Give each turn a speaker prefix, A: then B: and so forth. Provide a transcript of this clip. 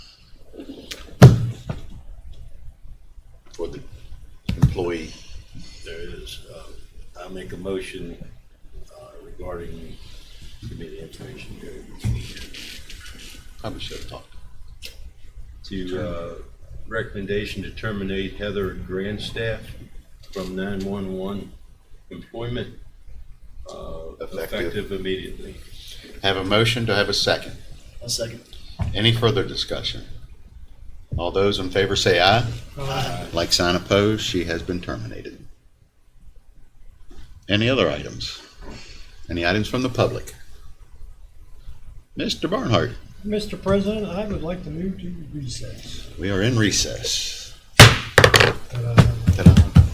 A: um, make a motion uh, regarding committee information
B: Probably should have talked.
A: to uh, recommendation to terminate Heather Grandstaff from 911 employment uh,
B: Effective.
A: effective immediately.
B: Have a motion, to have a second?
C: A second.
B: Any further discussion? All those in favor say aye.
D: Uh,
B: Like sign opposed, she has been terminated. Any other items? Any items from the public? Mr. Barnhart,
D: Mr. President, I would like to move to recess.
B: we are in recess.
D: Uh,